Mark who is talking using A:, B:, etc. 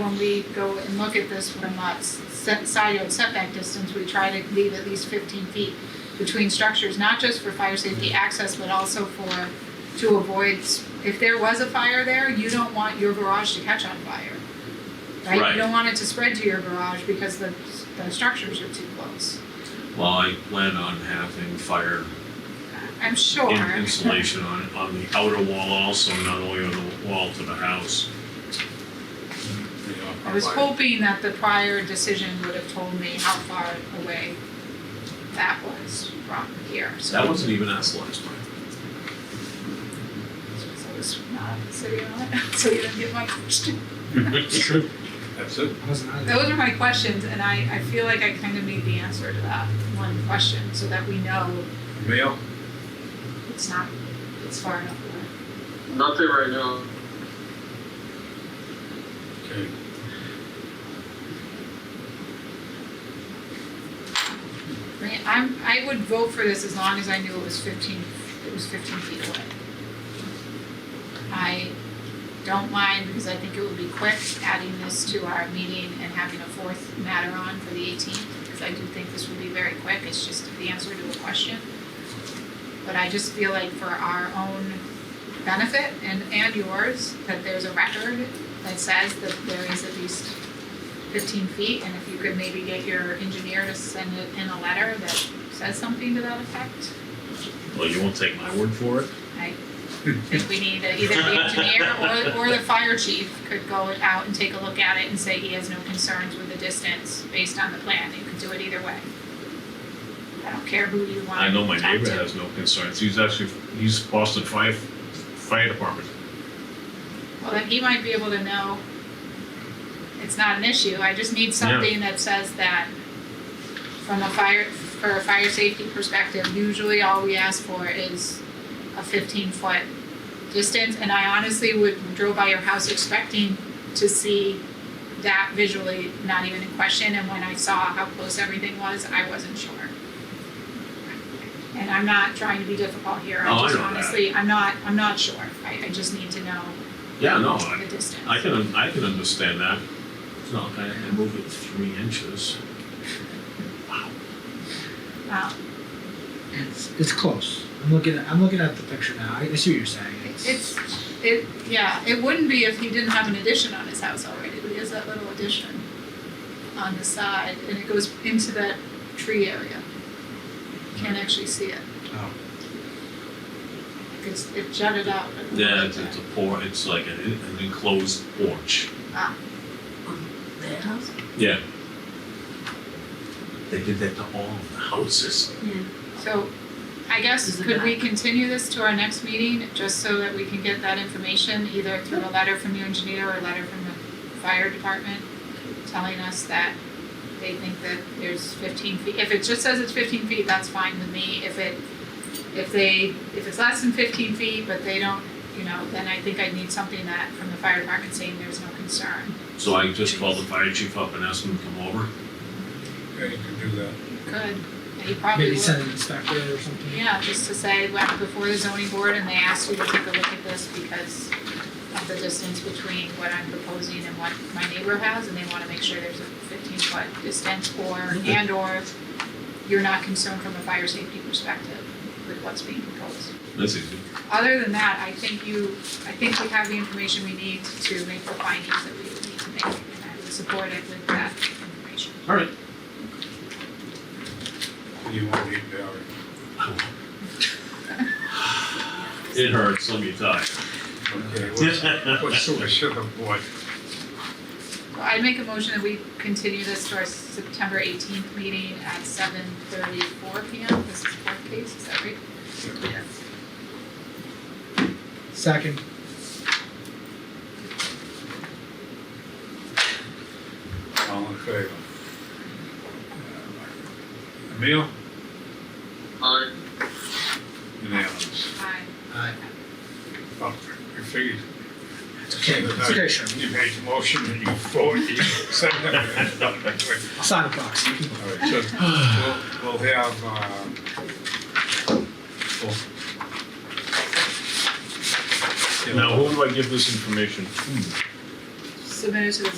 A: when we go and look at this from a set, side yard setback distance, we try to leave at least fifteen feet between structures, not just for fire safety
B: Mm-hmm.
A: access, but also for, to avoid, s- if there was a fire there, you don't want your garage to catch on fire. Right,
B: Right.
A: you don't want it to spread to your garage because the, the structures are too close,
B: Well, I plan on having fire
A: I'm sure.
B: in- insulation on, on the outer wall also, not only on the wall to the house.
A: I was hoping that the prior decision would have told me how far away that was from here, so.
B: That wasn't even us last time.
A: So it's not sitting on it, so you didn't get my question.
C: It's true. That's it.
A: Those are my questions, and I, I feel like I kind of need the answer to that one question, so that we know
C: Mail.
A: it's not, it's far enough away.
D: Nothing right now.
C: Okay.
A: I mean, I'm, I would vote for this as long as I knew it was fifteen, it was fifteen feet away. I don't mind, because I think it would be quick adding this to our meeting and having a fourth matter on for the eighteenth, because I do think this would be very quick, it's just the answer to a question. But I just feel like for our own benefit and, and yours, that there's a record that says that there is at least fifteen feet, and if you could maybe get your engineer to send it in a letter that says something to that effect.
B: Well, you won't take my word for it?
A: I think we need a- either the engineer or, or the fire chief could go out and take a look at it and say he has no concerns with the distance based on the plan, you could do it either way. I don't care who you want
B: I know my
A: to talk
B: neighbor
A: to.
B: has no concerns. He's actually, he's Boston Fire, Fire Department.
A: Well, then he might be able to know it's not an issue, I just need something that says that from a fire, for a fire safety perspective, usually all we ask for is a fifteen foot distance, and I honestly would drove by your house expecting to see that visually, not even in question, and when I saw how close everything was, I wasn't sure. And I'm not trying to be difficult here,
B: Oh, I
A: I just
B: know that.
A: honestly, I'm not, I'm not sure, I, I just need to know
B: Yeah, no, I,
A: the distance.
B: I can, I can understand that. No, I, I move it three inches.
A: Wow.
E: It's, it's close. I'm looking at I'm looking at the picture now. I, I see what you're saying. It's,
A: It's, it, yeah, it wouldn't be if he didn't have an addition on his house already, but he has that little addition on the side, and it goes into that tree area. Can't
B: Hmm.
A: actually see it,
E: oh,
A: it's, it jutted out. but it
B: Yeah,
A: wasn't
B: it's, it's a por, it's like an, an enclosed porch.
A: there.
B: Yeah. They did that to all of the houses.
A: So, I guess, could we continue this to our next meeting, just so that we can get that information, either through a letter from your engineer or a letter from the fire department, telling us that they think that there's fifteen feet, if it just says it's fifteen feet, that's fine with me, if it, if they, if it's less than fifteen feet, but they don't, you know, then I think I need something that, from the fire department saying there's no concern.
B: So I just called the fire chief up and asked him to come over.
C: Yeah, you can do that.
A: Good, he probably
E: maybe
A: would.
E: send an inspector or something.
A: Yeah, just to say, went before the zoning board and they asked you to take a look at this because of the distance between what I'm proposing and what my neighbor has, and they wanna make sure there's a fifteen foot distance or, and or you're not concerned from a fire safety perspective with what's being proposed.
B: That's easy.
A: Other than that, I think you, I think we have the information we need to make the findings that we would need to make, and I would support it with that information.
B: All right.
C: You won't need Barry.
B: It hurts, let me tell
C: Okay, what's,
B: you.
C: what's the wish of the board?
A: So I'd make a motion that we continue this to our September eighteenth meeting at seven thirty-four P M. This is the court case, is that right? Yes.
E: Second.
C: All in favor? Emil?
D: Alright,
C: Unanimous.
A: Aye.
E: Aye.
C: Well, I figured
E: It's okay. It's okay, Sherman.
C: you made the motion and you voted, you said that. All right,
E: Sign a box. You can vote.
C: so we'll, we'll have, uh, we'll.
B: Now, who do I give this information?
A: Submitted to the